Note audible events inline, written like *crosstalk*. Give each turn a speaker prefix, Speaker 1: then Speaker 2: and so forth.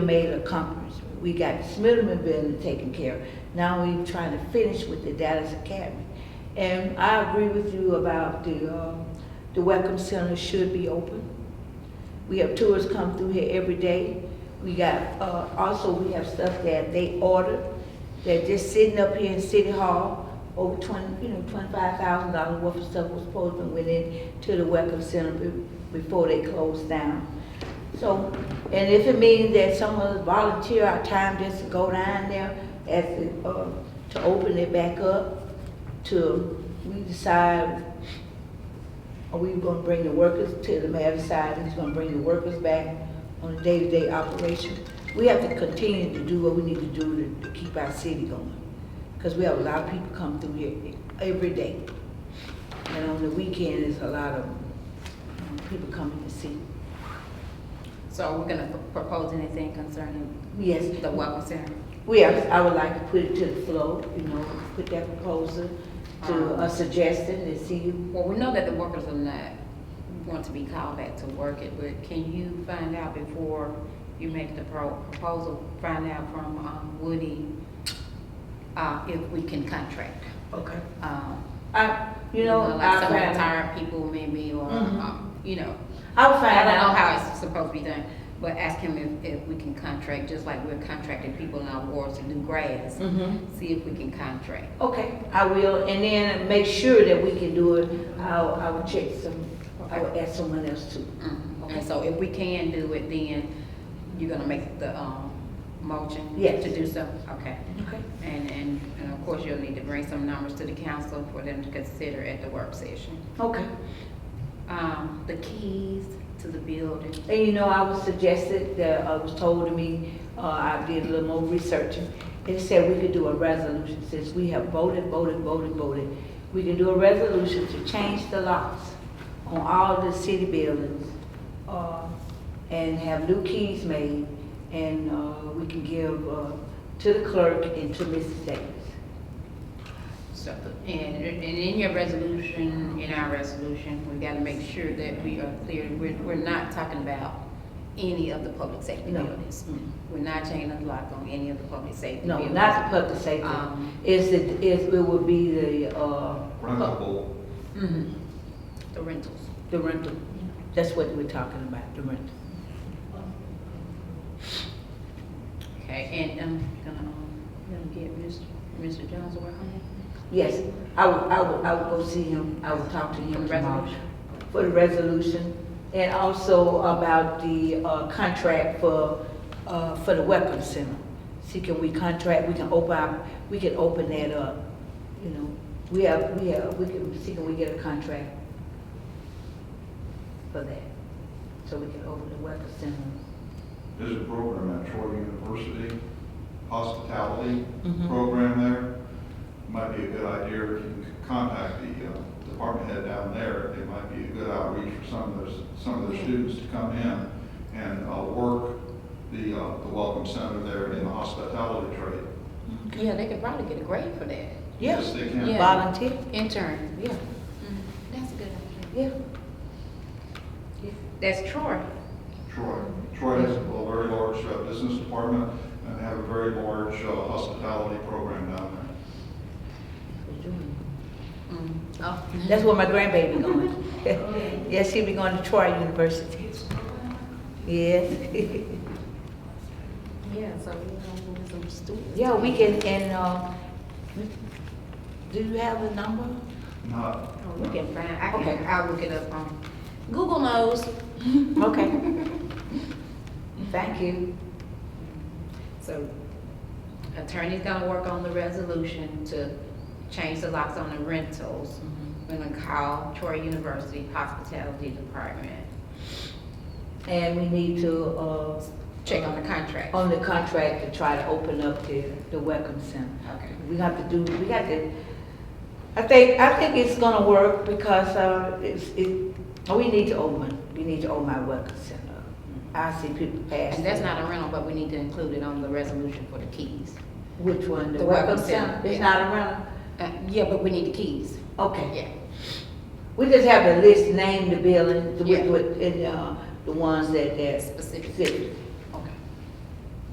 Speaker 1: We made an accomplishment. We got Smithman Building taken care of. Now we trying to finish with the Dallas Academy. And I agree with you about the, um, the Welcome Center should be open. We have tours come through here every day. We got, uh, also we have stuff that they ordered. They're just sitting up here in City Hall, over twenty, you know, twenty-five thousand dollars worth of stuff was supposed to went in to the Welcome Center be- before they closed down. So, and if it means that some of us volunteer our time just to go down there as, it, uh, to open it back up, to, we decide, are we gonna bring the workers to the mayor side, and he's gonna bring the workers back on a day-to-day operation? We have to continue to do what we need to do to, to keep our city going, cause we have a lot of people come through here every day. And on the weekend, there's a lot of um, people coming to see.
Speaker 2: So are we gonna p- propose anything concerning
Speaker 1: Yes,
Speaker 2: the welcome center?
Speaker 1: Yes, I would like to put it to the floor, you know, put that proposal to a suggestion and see.
Speaker 2: Well, we know that the workers are not want to be called back to work it, but can you find out before you make the pro- proposal, find out from um, Woody, uh, if we can contract?
Speaker 1: Okay.
Speaker 2: um,
Speaker 1: I, you know,
Speaker 2: Like
Speaker 1: I'll
Speaker 2: some
Speaker 1: find,
Speaker 2: retired people maybe, or,
Speaker 1: Mhm.
Speaker 2: um, you know,
Speaker 1: I'll
Speaker 2: I
Speaker 1: find
Speaker 2: don't know
Speaker 1: out.
Speaker 2: how it's supposed to be done, but ask him if, if we can contract, just like we're contracting people in our wards to do grass.
Speaker 1: Mhm.
Speaker 2: See if we can contract.
Speaker 1: Okay, I will, and then make sure that we can do it. I'll, I will check some, I will ask someone else too.
Speaker 2: Mm, Okay, so if we can do it, then you're gonna make the, um, motion?
Speaker 1: Yes.
Speaker 2: To do so, okay.
Speaker 1: Okay.
Speaker 2: And, and, and of course, you'll need to bring some numbers to the council for them to consider at the work session.
Speaker 1: Okay.
Speaker 2: Um, the keys to the building,
Speaker 1: And you know, I was suggested, that, I was told to me, uh, I did a little more researching. It said we could do a resolution, since we have voted, voted, voted, voted. We can do a resolution to change the locks on all the city buildings, uh, and have new keys made. And, uh, we can give, uh, to the clerk and to Mrs. Davis.
Speaker 2: so, and, and in your resolution, in our resolution, we gotta make sure that we are clear, we're, we're not talking about any of the public safety
Speaker 1: No. Mm.
Speaker 2: buildings. We're not changing the lock on any of the public safety
Speaker 1: No,
Speaker 2: buildings.
Speaker 1: not the public safety.
Speaker 2: Um,
Speaker 1: It's, the- it's, it would be the, uh,
Speaker 3: rentable.
Speaker 2: Mhm. The rentals.
Speaker 1: the rental. That's what we're talking about, the rental.
Speaker 2: Okay, and I'm gonna, um, gonna get Mr. Mr. Jones to work on
Speaker 1: Yes, I will, I will, I will go see him, I will talk to him
Speaker 2: For the
Speaker 1: tomorrow.
Speaker 2: resolution?
Speaker 1: For the resolution, and also about the, uh, contract for, uh, for the Welcome Center. See, can we contract, we can open, our- we can open that up, you know, we have, we have, we can, see, can we get a contract for that? So we can open the Welcome Center.
Speaker 3: There's a program at Troy University, hospitality
Speaker 2: Mm-hmm.
Speaker 1: Mhm.
Speaker 3: program there. Might be a good idea if you can contact the uh, department head down there. It might be a good outreach for some of those, some of the students to come in and uh, work the, uh, the welcome center there in the hospitality trade.
Speaker 2: it. Yeah, they could probably get a grade for that.
Speaker 1: Yes,
Speaker 3: Yes, they can.
Speaker 2: Yeah.
Speaker 1: volunteer,
Speaker 2: Intern.
Speaker 1: yeah,
Speaker 2: Mm-hmm. That's a good idea.
Speaker 1: yeah.
Speaker 2: That's Troy.
Speaker 3: Troy, Troy has a very large uh, business department and they have a very large uh, hospitality program down there.
Speaker 1: We're doing it.
Speaker 2: Oh.
Speaker 1: That's where my grandbaby going. Yes, she be going *laughs* to Troy University. Yes. *laughs*
Speaker 2: Yeah, so we're gonna move some students.
Speaker 1: Yeah, we can, and, uh, do you have a number?
Speaker 3: Not,
Speaker 2: Oh, we can find, I
Speaker 1: Okay.
Speaker 2: can, I'll look it up um, on, Google knows. *laughs*
Speaker 1: Okay. Thank you.
Speaker 2: So attorney's gonna work on the resolution to change the locks on the rentals. We're gonna call Troy University Hospitality Department,
Speaker 1: And we need to, uh,
Speaker 2: check on the contract.
Speaker 1: on the contract to try to open up the, the Welcome Center.
Speaker 2: Okay.
Speaker 1: We have to do, we got to, I think, I think it's gonna work because, uh, it's, it, we need to open, we need to open our Welcome Center. up. I see people pass.
Speaker 2: And that's not a rental, but we need to include it on the resolution for the keys.
Speaker 1: Which one? The
Speaker 2: The
Speaker 1: Welcome
Speaker 2: Welcome
Speaker 1: Center?
Speaker 2: Center,
Speaker 1: It's
Speaker 2: yeah.
Speaker 1: not around?
Speaker 2: Uh, yeah, but we need the keys.
Speaker 1: Okay.
Speaker 2: Yeah.
Speaker 1: We just have to list, name the building, the- with,
Speaker 2: Yeah.
Speaker 1: with, and, uh, the ones that, that.
Speaker 2: Specific.
Speaker 1: fit.